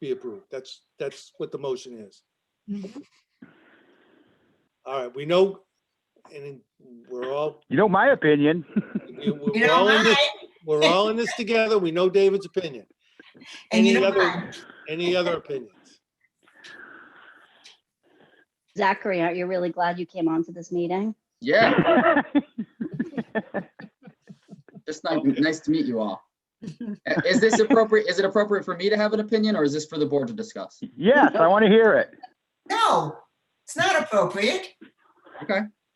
be approved. That's, that's what the motion is. All right, we know, and we're all, You know my opinion. we- You we're know all in mine, this, we're all in this together. We know David's opinion. and you any know other- mine. Any other opinions? Zachary, aren't you really glad you came on to this meeting? Yeah, just ni- nice to meet you all. Uh, Is this appropriate, is it appropriate for me to have an opinion or is this for the board to discuss? Yes, I want to hear it. No, it's not appropriate.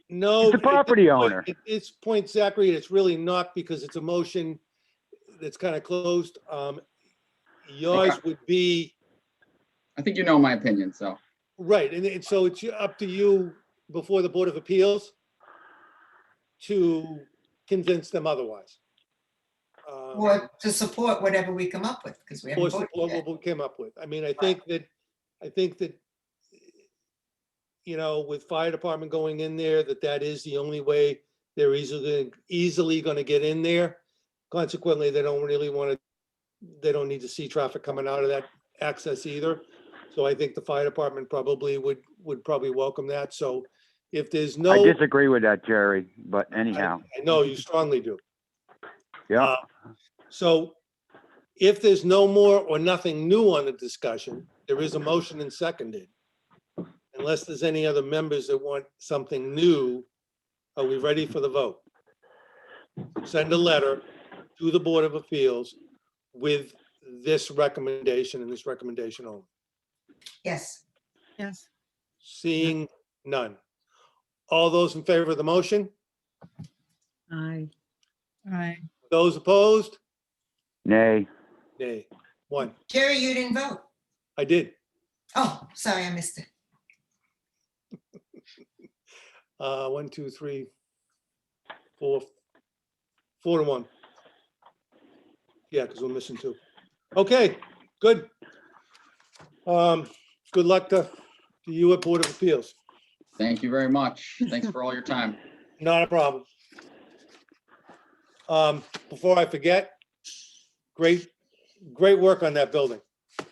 No. It's a at this property point- owner. At this point, Zachary, it's really not because it's a motion that's kind of closed. Um, Yours would be, I think you know my opinion, so. right, and it- so it's up to you before the Board of Appeals to convince them otherwise. Um, Or to support whatever we come up with, because we haven't Or voted support yet. what we came up with. I mean, I think that, I think that, you know, with fire department going in there, that that is the only way they're easily, easily gonna get in there. Consequently, they don't really wanna, they don't need to see traffic coming out of that access either. So I think the fire department probably would, would probably welcome that. So if there's no, I I disagree with that, Jerry, but anyhow, know you strongly do. Uh, yeah. So if there's no more or nothing new on the discussion, there is a motion and seconded. Unless there's any other members that want something new, are we ready for the vote? Send a letter to the Board of Appeals with this recommendation and this recommendation only. Yes, Yes. Seeing none. All those in favor of the motion? Aye. Aye. Those opposed? Nay, Nay. One. Jerry, you didn't vote. I did. Oh, sorry, I missed it. Uh, one, two, three, four, four to one. Yeah, because we're missing two. Okay, good. Um, good luck to, to you at Board of Appeals. Thank you very much. Thanks for all your time. Not a problem. Um, before I forget, great, great work on that building.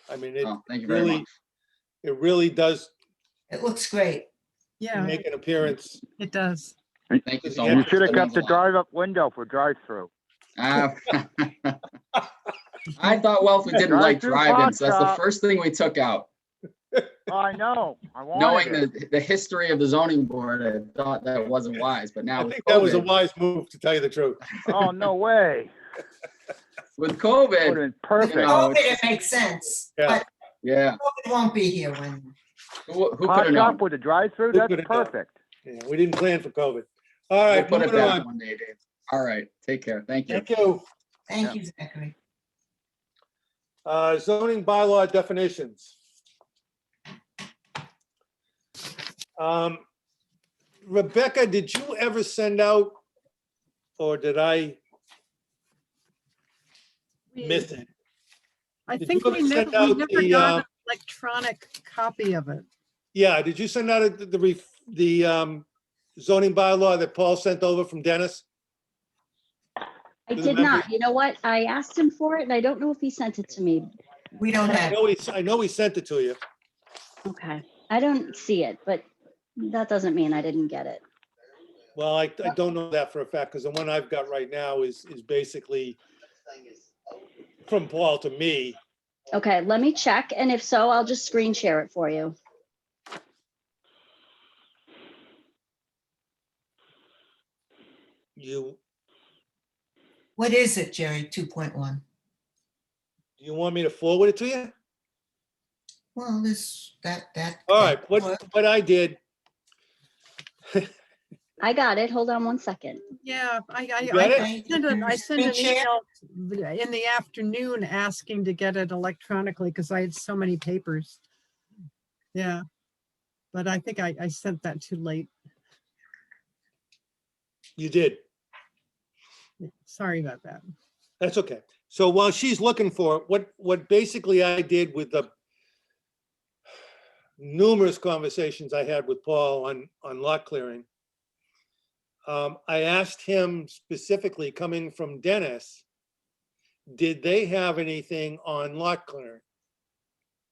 I mean, it, Oh, Thank you very really- much. it really does It looks great. Yeah, make an appearance. it does. Thank you so Yeah. you much. should have That kept means a the drive-up window for drive-through. lot. Ah, I thought Wellfleet didn't like Drive-through drive-ins. That's the pasta. first thing we took out. Oh, I know, I Knowing wanted it. the, the history of the zoning board, I thought that wasn't wise, but now I with think that was a COVID, wise move, to tell you the truth. Oh, no way. with Would have COVID, been perfect. know, COVID, it's it makes sense, Yeah. but yeah. COVID won't be here when, Who could Hot have known? shop with a drive-through, Who that's coulda known? perfect. Yeah, we didn't plan for COVID. All We'll right, put it moving down on. one day, Dave. All right, take care. Thank you. Thank you. thank you, Zachary. Uh, zoning bylaw definitions. Um, Rebecca, did you ever send out, or did I miss it? I Did think you we ever never, send we out never the, got uh, an electronic copy of it. Yeah, did you send out the- the, ref- the um, zoning bylaw that Paul sent over from Dennis? I Does it did matter? not. You know what? I asked him for it and I don't know if he sent it to me. We don't I have, know he, I know he sent it to you. Okay. I don't see it, but that doesn't mean I didn't get it. Well, I, I don't know that for a fact, because the one I've got right now is, is basically from Paul to me. Okay, let me check. And if so, I'll just screen share it for you. You, what is it, Jerry, 2.1? Do you want me to forward it to you? Well, this, that, that. All right, that what, worked. what I did, I got it. Hold on one second. Yeah, I, I- You got I, it? I, sent an- I sent an Screen share? email th- in the afternoon asking to get it electronically because I had so many papers. Yeah. But I think I, I sent that too late. you did. Sorry about that. That's okay. So while she's looking for it, what, what basically I did with the numerous conversations I had with Paul on, on lot clearing, um, I asked him specifically, coming from Dennis, did they have anything on lot clearing?